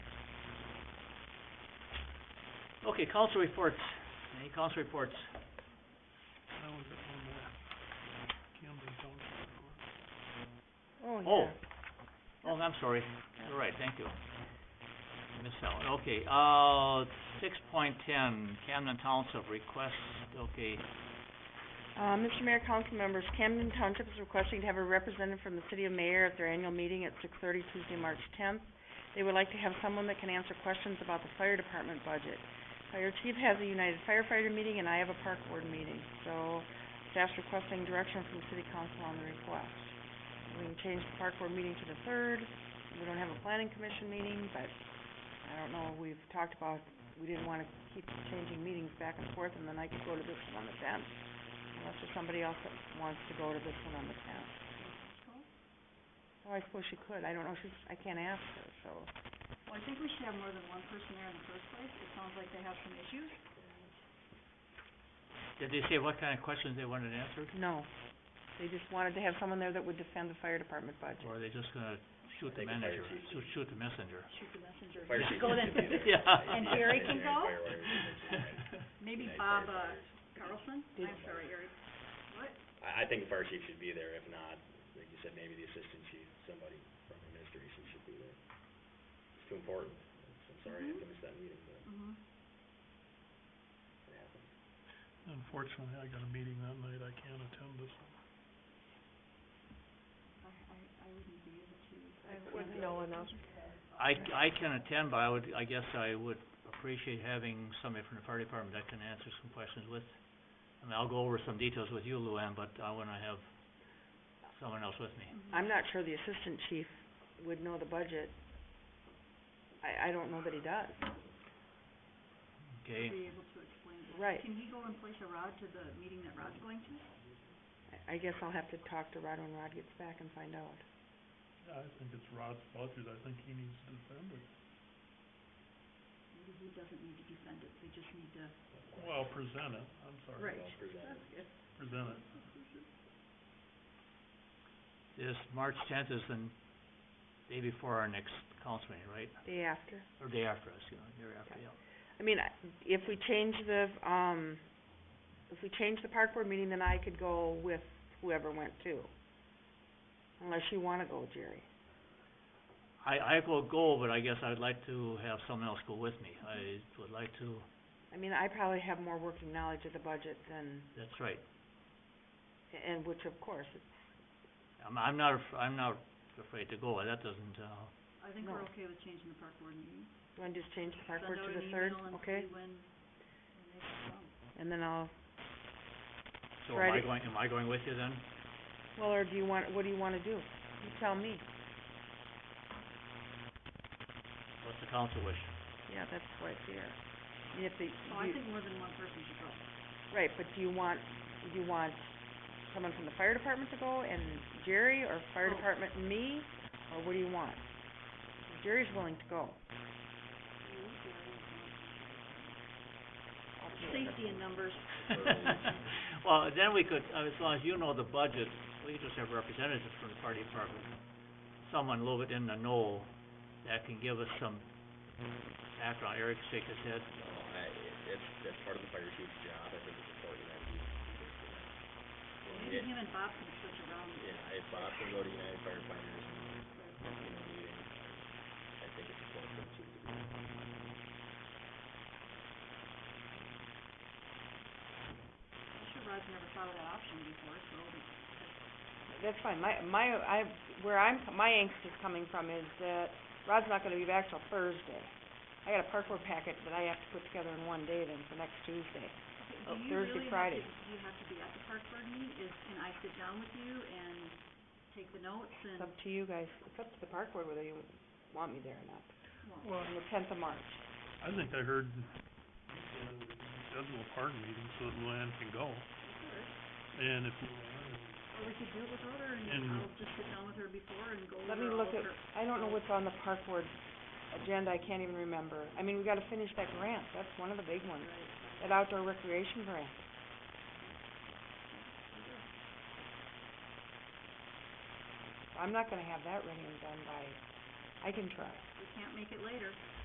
Okay, council reports. Any council reports? I was at one of that, Camden Township report. Oh, Oh. yeah. Oh, I'm sorry. All right, thank you. Miss Helen, okay, uh, six point ten, Camden Township requests, okay, Uh, Mr. Mayor, council members, Camden Township is requesting to have a representative from the city of mayor at their annual meeting at six thirty Tuesday, March tenth. They would like to have someone that can answer questions about the fire department budget. Fire chief has a United Firefighter meeting and I have a park board meeting, so staff's requesting direction from city council on the request. We can change the park board meeting to the third, we don't have a planning commission meeting, but I don't know, we've talked about, we didn't wanna keep changing meetings back and forth and then I could go to this one on the tenth unless there's somebody else that wants to go to this one on the tenth. Oh, I suppose she could, I don't know, she's, I can't ask her, so, Well, I think we should have more than one person there in the first place. It sounds like they have some issues. did they say what kind of questions they wanted answered? no. They just wanted to have someone there that would defend the fire department budget. Or are they just gonna shoot the Take a fire manager, chief. shoot, shoot the messenger? Shoot the messenger. Fire Just chief. Go then. Yeah. And Harry can go? I, Maybe Night Bob, uh, firefighters. Carlson? Did- I'm sorry, Eric. I think the fire chief should be there, if not, like you said, maybe the assistant chief, somebody from administration should be there. It's too important, It's- I'm sorry I had to miss that meeting, but Mm-hmm. it happened. Unfortunately, I got a meeting that night, I can't attend this one. I, I, I wouldn't be able to. I wouldn't know enough. I, c- I can attend, but I would, I guess I would appreciate having somebody from the fire department that can answer some questions with. I mean, I'll go over some details with you, Luann, but I wanna have someone else with me. Mm-hmm. I'm not sure the assistant chief would know the budget. I, I don't know that he does. Okay, Be able to explain it. Right. Can he go and place a rod to the meeting that Rod's going to? I, I guess I'll have to talk to Rod when Rod gets back and find out. I think it's Rod's budget, I think he needs to defend it. Maybe he doesn't need to defend it. They just need to. Well, present it, I'm sorry, Right. Well presented. That's good. present it. this March tenth is the n- day before our next council meeting, right? Day after. Or day after, excuse me, day after, yeah. I mean, I- if we change the, um, if we change the park board meeting, then I could go with whoever went too. Unless you wanna go, Jerry. I, I will go, but I guess I'd like to have someone else go with me. I would like to, I mean, I probably have more working knowledge of the budget than, that's right. and which of course, I'm, I'm not, af- I'm not afraid to go, that doesn't, uh, I think we're No. okay with changing the park board meeting. you wanna just change the park board to the third, okay? Send out an email and see when, when they come. And then I'll, so am I Friday- going, am I going with you then? well, or do you want, what do you wanna do? You tell me. What's the council wish? Yeah, that's why it's here. I mean, If the, So Oh, I you- think more than one person should go. right, but do you want, do you want someone from the fire department to go and Jerry or fire Oh. department and me? Or what do you want? Jerry's willing to go. Safety in numbers. Well, then we could, uh, as long as you know the budget, we could just have representatives from the party department. Someone a little bit in the know that can give us some background. Eric shake his head. No, I, it's, that's part of the fire chief's job, I think it's important that he, Maybe him and Bob can switch around. yeah, if Bob can go to United Firefighters and, you know, meeting, I think it's important for the chief to be there. I'm sure Rod's never thought of that option before, so That's fine, my, my, I, where I'm, my angst is coming from is that Rod's not gonna be back till Thursday. I got a park board packet that I have to put together in one day then for next Tuesday. Oh, do you Thursday, really have Friday. to, do you have to be at the park board meeting? Is, can I sit down with you and take the notes and, It's up to you guys, it's up to the park board whether you want me there or not, well, Well, on the tenth of March. I think I heard, uh, schedule a park meeting so that Luann can go. And if Luann is or we could do it with her and And- I'll just sit down with her before and go over Let me all look of at, her. I don't know what's on the park board agenda, I can't even remember. I mean, we gotta finish that grant, that's one of the big ones, that outdoor recreation grant. I'm not gonna have that ready and done by, I can try. We can't make it later.